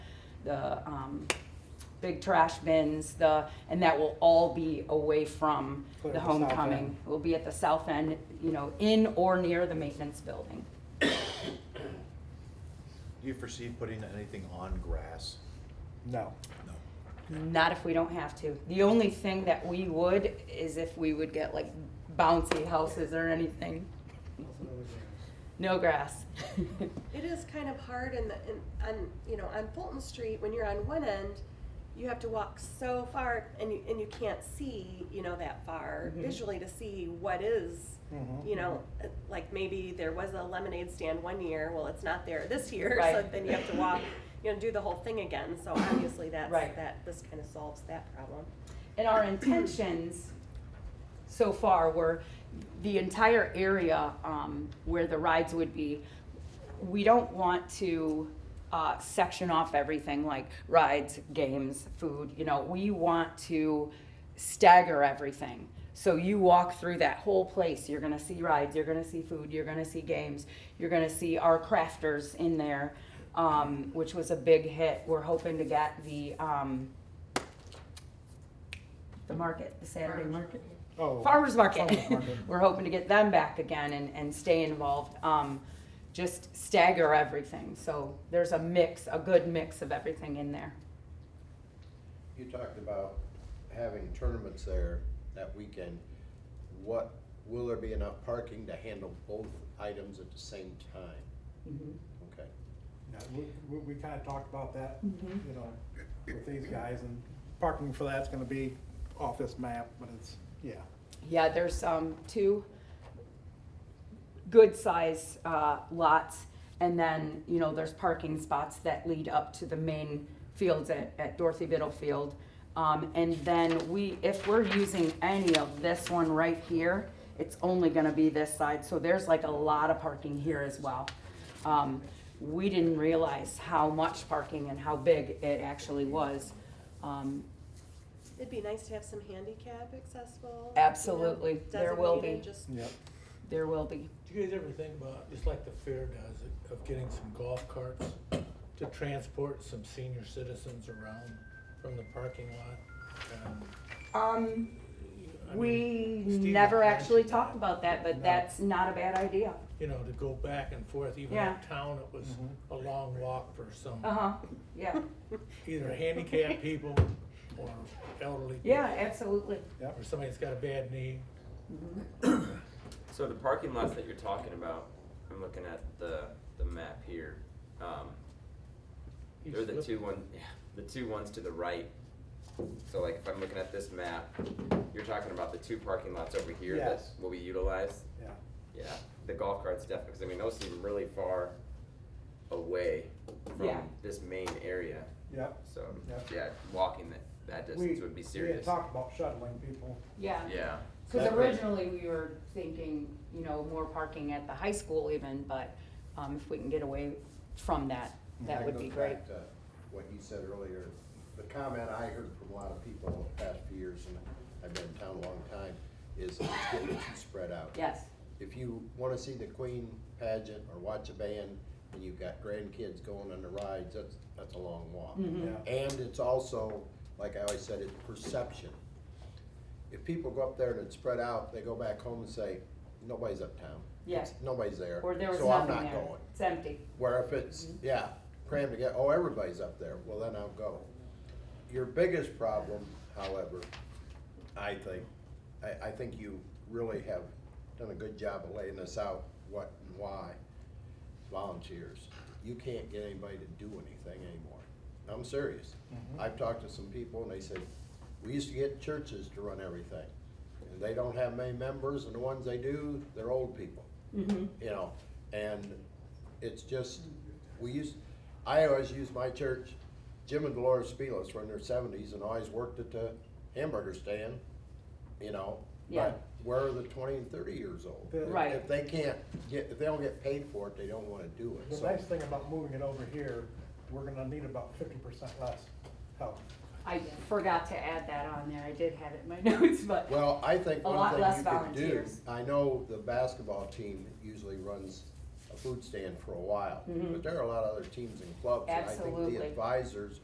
the, um, big trash bins, the, and that will all be away from Put it the at the south homecoming. end. Will be at the south end, you know, in or near the maintenance building. Do you foresee putting anything on grass? No. No. Not if we don't have to. The only thing that we would is if we would get like bouncy houses or anything. No grass. It is kind of hard in the, in, on, you know, on Fulton Street, when you're on one end, you have to walk so far and you, and you can't see, you know, that far Mhm. visually to see what is, Mm-hmm. Mhm. you know, uh, like maybe there was a lemonade stand one year, well, it's not there this year, so Right. then you have to walk, you know, do the whole thing again, so obviously that's, Right. that, this kind of solves that problem. And our intentions so far were the entire area um, where the rides would be. We don't want to uh, section off everything like rides, games, food, you know, we want to stagger everything. So you walk through that whole place, you're gonna see rides, you're gonna see food, you're gonna see games, you're gonna see our crafters in there, um, which was a big hit. We're hoping to get the, um, the market, the Saturday market. Oh. Farmers market. Farmers market. We're hoping to get them back again and, and stay involved. Um, just stagger everything, so there's a mix, a good mix of everything in there. You talked about having tournaments there that weekend. What, will there be enough parking to handle both items at the same time? Mm-hmm. Okay. Yeah, we, we, we kinda talked about that, Mm-hmm. Mhm. you know, with these guys and parking for that's gonna be off this map, but it's, yeah. Yeah, there's, um, two good size, uh, lots. And then, you know, there's parking spots that lead up to the main fields at, at Dorothy Biddle Field. Um, and then we, if we're using any of this one right here, it's only gonna be this side, so there's like a lot of parking here as well. Um, we didn't realize how much parking and how big it actually was. Um, It'd be nice to have some handicap accessible. you know, Absolutely. There will be. designated, Just Yep. there will be, Do you guys ever think about, just like the fair does, of getting some golf carts to transport some senior citizens around from the parking lot? Um, um, I mean, We Steve never had actually mentioned talked that, about that, but No. that's not a bad idea. You know, to go back and forth, even Yeah. uptown, it was a long walk for some, Uh-huh, yeah, either handicapped people or elderly. people, yeah, absolutely. Or somebody that's got a bad knee. So the parking lots that you're talking about, I'm looking at the, the map here. Um, they're the two one, yeah, the two ones to the right. So like if I'm looking at this map, you're talking about the two parking lots over here that Yes. will be utilized? Yeah, Yeah, the golf carts definitely, because I mean, those seem really far away from Yeah. this main area. yep. So, Yeah. yeah, walking that, that distance We- would be We had serious. talked about shuttling people. Yeah, Yeah, because originally we were thinking, you know, more parking at the high school even, but um, if we can get away from that, that That would goes be great. back to What you said earlier, the comment I heard from a lot of people the past few years, and I've been in town a long time, is it's getting too spread out. Yes, If you wanna see the Queen pageant or watch a band, and you've got grandkids going on the rides, that's, that's a long walk. Mm-hmm. Yeah. And it's also, like I always said, it's perception. If people go up there and it's spread out, they go back home and say, nobody's uptown. Yeah. It's- Nobody's there, or there was so I'm nothing not there. going. It's empty. Where if it's, yeah, crammed together, oh, everybody's up there, well, then I'll go. Your biggest problem, however, I think, I, I think you really have done a good job of laying this out, what and why. Volunteers, you can't get anybody to do anything anymore. I'm serious. I've talked to some people and they said, we used to get churches to run everything. And they don't have many members and the ones they do, they're old people Mm-hmm. you know, and it's just, we use, I always use my church, Jim and Dolores Spielus were in their seventies and always worked at the hamburger stand, you know? Yeah. But where are the twenty and thirty years old? If- Right. If they can't get, if they don't get paid for it, they don't wanna do it, The so. nice thing about moving it over here, we're gonna need about fifty percent less help. I forgot to add that on there. I did have it in my notes, but, Well, I think A one lot thing less you could do, volunteers. I know the basketball team usually runs a food stand for a while, but there are a lot of other teams and clubs. And I think Mm-hmm. Absolutely. the advisors